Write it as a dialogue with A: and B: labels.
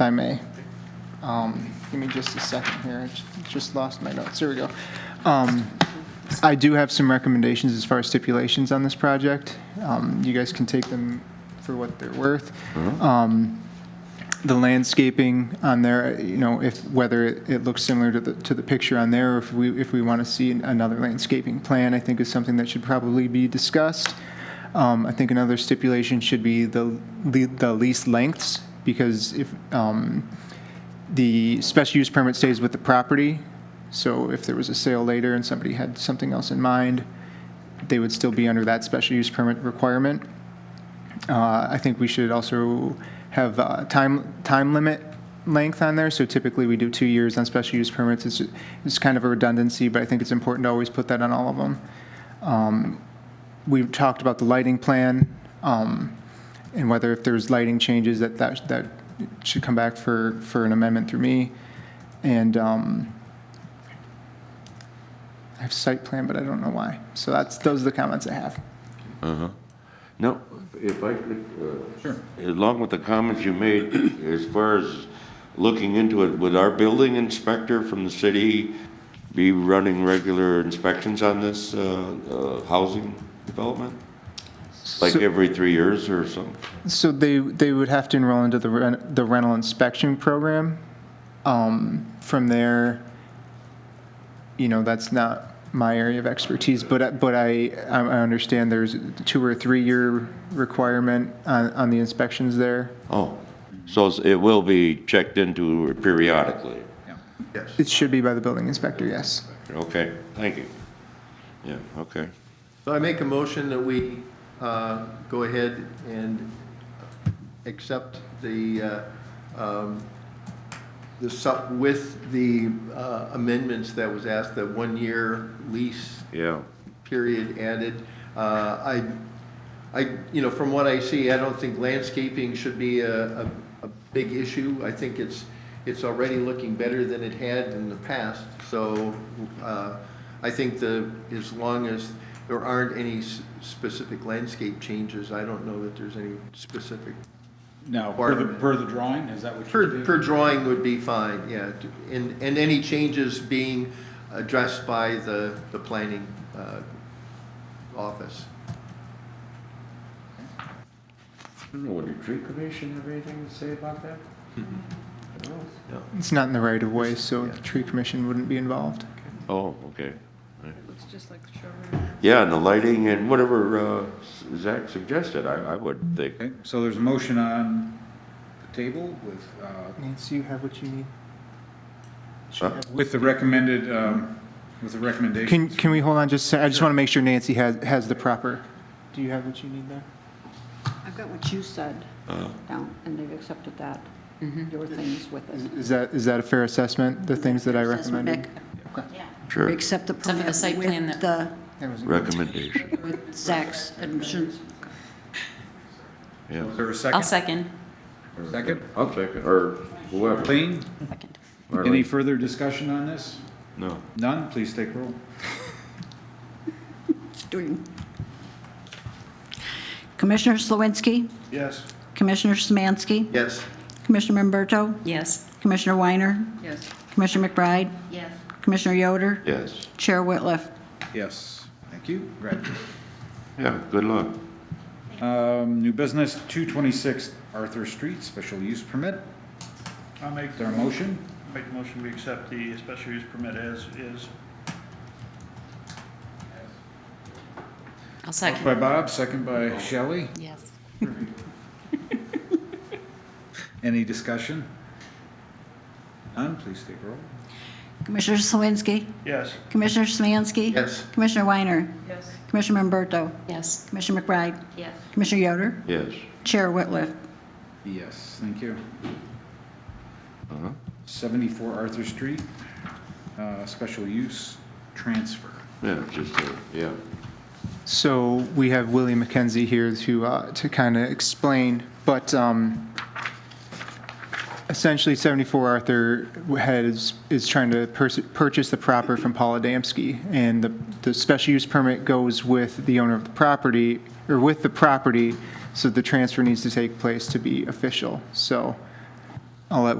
A: if I may. Um, Give me just a second here, I ju- just lost my notes, here we go. Um, I do have some recommendations as far as stipulations on this project. Um, You guys can take them for what they're worth. Um, The landscaping on there, you know, if, whether it it looks similar to the, to the picture on there, or if we, if we want to see another landscaping plan, I think is something that should probably be discussed. Um, I think another stipulation should be the, the the lease lengths, because if, um, the special use permit stays with the property, so if there was a sale later and somebody had something else in mind, they would still be under that special use permit requirement. Uh, I think we should also have uh, time, time limit length on there, so typically we do two years on special use permits. It's, it's kind of a redundancy, but I think it's important to always put that on all of them. Um, We've talked about the lighting plan, um, and whether if there's lighting changes, that, that, that should come back for, for an amendment through me. And, um, I have site plan, but I don't know why. So that's, those are the comments I have.
B: No, if I could, uh, along with the comments you made, as far as looking into it, would our building inspector from the city be running regular inspections on this uh, uh, housing development? Like
A: So-
B: every three years or something?
A: So they, they would have to enroll into the rent, the rental inspection program. Um, from there, you know, that's not my area of expertise, but, I- but I, I I understand there's a two or three-year requirement on, on the inspections there.
B: Oh, so it will be checked into periodically?
A: It should be by the building inspector, yes.
B: Okay, thank you. Yeah, okay.
C: So I make a motion that we uh, go ahead and accept the, uh, um, the sup, with the uh, amendments that was asked, the one-year lease
B: Yeah.
C: period added. Uh, I, I, you know, from what I see, I don't think landscaping should be a, a, a big issue. I think it's, it's already looking better than it had in the past, so, uh, I think the, as long as there aren't any s- specific landscape changes, I don't know that there's any specific.
D: No, per the,
C: Requirement.
D: per the drawing, is that what
C: Per,
D: you're
C: per
D: doing?
C: drawing would be fine, yeah, and, and any changes being addressed by the, the planning, uh, office.
B: I don't know, would the tree commission have anything to say about that? No?
A: It's not in the right of way, so the tree commission wouldn't be involved.
B: Oh, okay.
E: Looks just like the showroom.
B: Yeah, and the lighting and whatever uh, Zach suggested, I, I would think.
D: Okay, so there's a motion on the table with, uh,
A: Nancy, you have what you need?
B: Huh?
D: with the recommended, um, with the
A: Can,
D: recommendations.
A: can we hold on just, a sec? I just want to make sure Nancy has, has the proper, do you have what you need there?
F: I've got what you said down, and they've accepted that.
E: Mm-hmm.
F: Your things with
A: Is-
F: it.
A: Is that, is that a fair assessment, the things that I
F: Assessment
A: recommended?
B: Sure,
F: Accept the
E: Except for the
F: permit
E: site plan
F: with the,
A: That was-
B: recommendation,
F: with Zach's admissions.
B: yeah.
D: Is there a
E: I'll
D: second?
E: second.
D: Second?
B: I'll second, or whoever.
D: Lean,
E: Second.
D: any further discussion on this?
B: No.
D: None, please take roll.
F: It's doing- Commissioner Slawinski,
D: Yes.
F: Commissioner Smansky,
C: Yes.
F: Commissioner Memberto,
E: Yes.
F: Commissioner Weiner,
E: Yes.
F: Commissioner McBride. Yes. Commissioner Yoder,
B: Yes,
F: Chair Whitliff.
D: Yes, thank you, congratulations.
B: yeah, good luck.
D: Um, new business, two twenty-six Arthur Street, special use permit.
G: I'll make,
D: Is there a motion?
G: make the motion, we accept the special use permit as is.
E: I'll second.
D: By Bob, second by Shelley.
E: Yes.
D: Any discussion? None, please take roll.
F: Commissioner Slawinski,
G: Yes,
F: Commissioner Smansky.
C: Yes.
F: Commissioner Weiner,
E: Yes.
F: Commissioner Memberto,
E: Yes.
F: Commissioner McBride,
E: Yes.
F: Commissioner Yoder,
B: Yes,
F: Chair Whitliff.
D: Yes, thank you.
B: Uh-huh.
D: 74 Arthur Street, uh, special use transfer.
B: yeah, just, uh, yeah.
A: So we have Willie McKenzie here to, uh, to kind of explain, but um, essentially 74 Arthur has, is trying to pers- purchase the property from Paul Adamski, and the, the special use permit goes with the owner of the property, or with the property, so the transfer needs to take place to be official. So I'll let